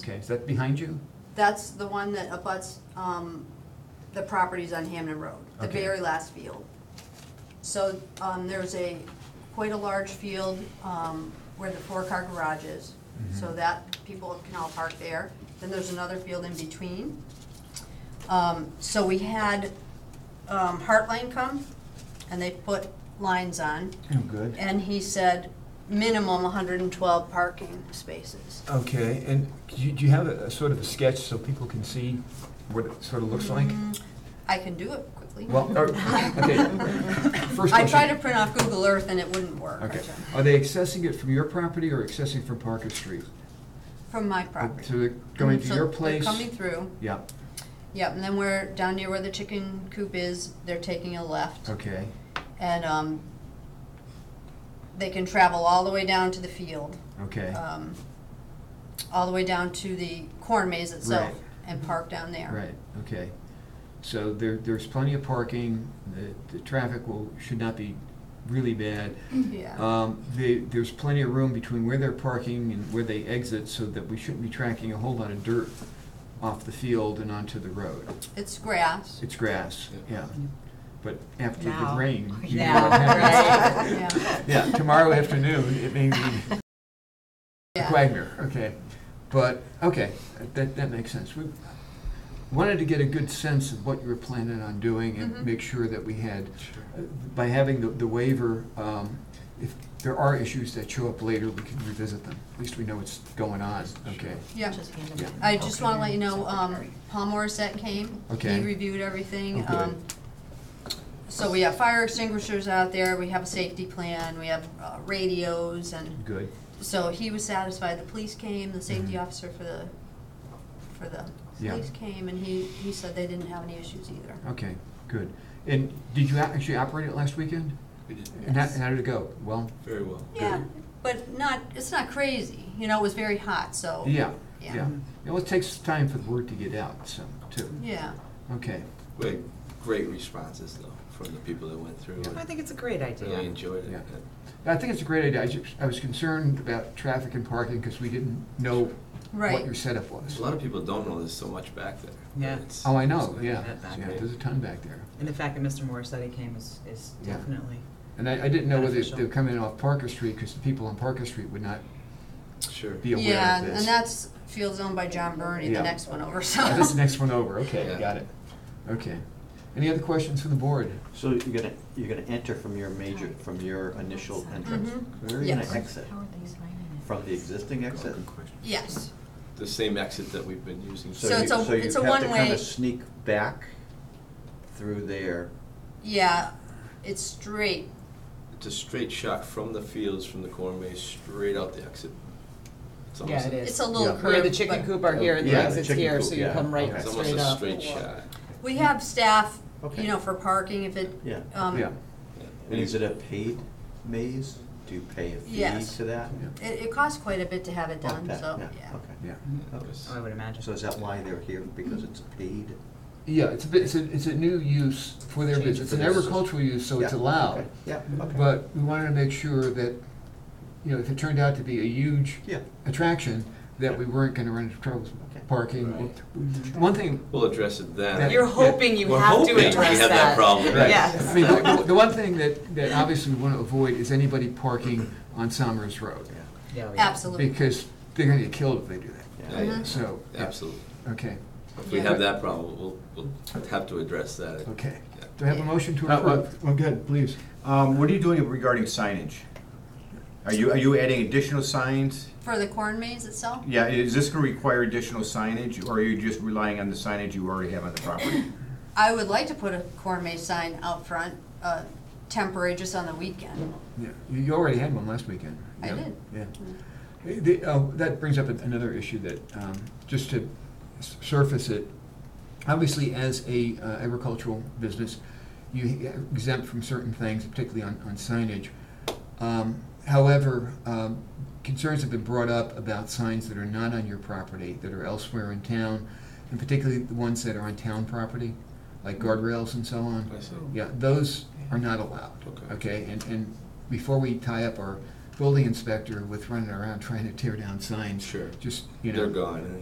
Okay, is that behind you? That's the one that abuts, um, the properties on Hamden Road, the Okay. very last field. So, um, there's a, quite a large field, um, where the four-car garage is, so Mhm. that people can all park there. Then there's another field in between. Um, so we had, um, Heartline come, and they put lines on, Oh, good. and he said minimum hundred and twelve parking spaces. Okay, and do you, do you have a, a sort of a sketch so people can see what it sort of looks like? Mm, I can do it quickly. Well, or- okay, first I tried to question. print off Google Earth and it wouldn't work. Okay, are they accessing it from your property or accessing from Parker Street? From my property. So they're going So to your they're place? Coming through, Yeah, yep, and then we're down near where the chicken coop is, they're taking a left. okay, And, um, they can travel all the way down to the field, okay, um, all the way down to the corn maze itself Right. and park down there. right, okay. So there, there's plenty of parking, the, the traffic will, should not be really bad. Yeah, Um, they, there's plenty of room between where they're parking and where they exit, so that we shouldn't be tracking a whole lot of dirt off the field and onto the road. it's grass, It's grass, yeah. But after the Now. rain, you know Now, what happens. right? yeah. Yeah, tomorrow afternoon, it may be Yeah. Wagner, okay. But, okay, that, that makes sense. We wanted to get a good sense of what you were planning on doing Mhm. and make sure that we had uh, by having the- the waiver, um, if there are issues that show up later, we can revisit them. At least we know what's going on, okay? Yeah. Just hand them Yeah. to the I just wanna let you know, um, secretary. Paul Morissette came, Okay. he reviewed everything, Okay. um, so we have fire extinguishers out there, we have a safety plan, we have uh, radios, and, Good. so he was satisfied, the police came, the safety Mhm. officer for the, for the Yeah. police came, and he, he said they didn't have any issues either. Okay, good. And did you a- actually operate it last weekend? We did And how, Yes. and how did it go? Well, very well. Yeah, but not, it's not crazy, you know, it was very hot, so. yeah, Oh, Yeah. yeah. It always takes time for the word to get out, so, too. Yeah, Okay, We had great responses though from the people that went through. I and think it's a great Really idea. enjoyed it. Yeah. And I think it's a great idea. I ju- I was concerned about traffic and parking because we didn't know what Right. your setup was. A lot of people don't know there's so much back there. Yeah. It's- Oh, I know, it's- yeah. that back Yeah, way. there's a ton back there. And the fact that Mr. Morissette came is, is Yeah. definitely, And I, I didn't know whether they Beneficial. were coming in off Parker Street, because the people on Parker Street would not Sure. be aware yeah, of this. and that's fields owned by John Burney, Yeah. the next one over, so. Oh, That's the next one over, okay, Yeah. got it. Okay. Any other questions from the board? So you're gonna, you're gonna enter from your major, from your initial entrance? Mhm. Where are you Yes. gonna exit? From the existing exit? Good question. Yes, The same exit that we've been using. So you- it's a- it's a So you have to one-way- kinda sneak back through there. yeah, it's straight, It's a straight shot from the fields, from the corn maze, straight out the exit. It's yeah, almost it a- is. It's a little Yeah. Where curved, the chicken but- coop are here, the Yeah, the exit's chicken here, coop, so you yeah. come right Okay. It's almost straight a up. straight shot. We have staff, you Okay. know, for parking if it, Yeah. um, Yeah, it, Yeah. And is it a paid maze? Do you pay a fee Yes. to that? Yeah. it costs quite a bit to have it done, Okay, so, yeah, yeah. okay. yeah. It was- Oh, I would imagine. So is that why they're here, because it's paid? Yeah, it's a bit, it's a, it's a new use for their Change business. It's for an this. agricultural use, so it's Yeah, allowed. okay, Yeah, okay. But we wanted to make sure that, you know, if it turned out to be a huge Yeah. attraction, that we weren't gonna run into troubles Okay. with parking. Right. One thing, We'll address it then. You're hoping you We're have to hoping we address that. have that problem. Right. Yes. I mean, the, the- the one thing that, that obviously we want to avoid is anybody parking on Somers Road, Yeah, Yeah, yeah. Absolutely, because they're gonna get killed if they do that. Yeah, Uh-huh. yeah. So, yeah. Absolutely. Okay, If we Yeah. have that problem, we'll, we'll have to address that. okay. Yeah. Do I have a motion to Uh, well- approve? Well, Oh, good, please. Um, what are you doing regarding signage? Are you, are you adding additional signs? for the corn maze itself, Yeah, is this gonna require additional signage, or are you just relying on the signage you already have on the property? I would like to put a corn maze sign out front, uh, temporary, just on the weekend. Yeah, You you already had one last weekend. I Yeah, did. Yeah. Mm-hmm. Uh, the- oh, That brings up an- another issue that, um, just to s- surface it, obviously as a uh, agricultural business, you exempt from certain things, particularly on on signage. Um, However, um, concerns have been brought up about signs that are not on your property, that are elsewhere in town, and particularly the ones that are on town property, like guardrails and so on. I see. Yeah, those are not allowed. Okay. Okay, and, and before we tie up our building inspector with running around trying to tear down signs. Sure. Just, you know. They're gone.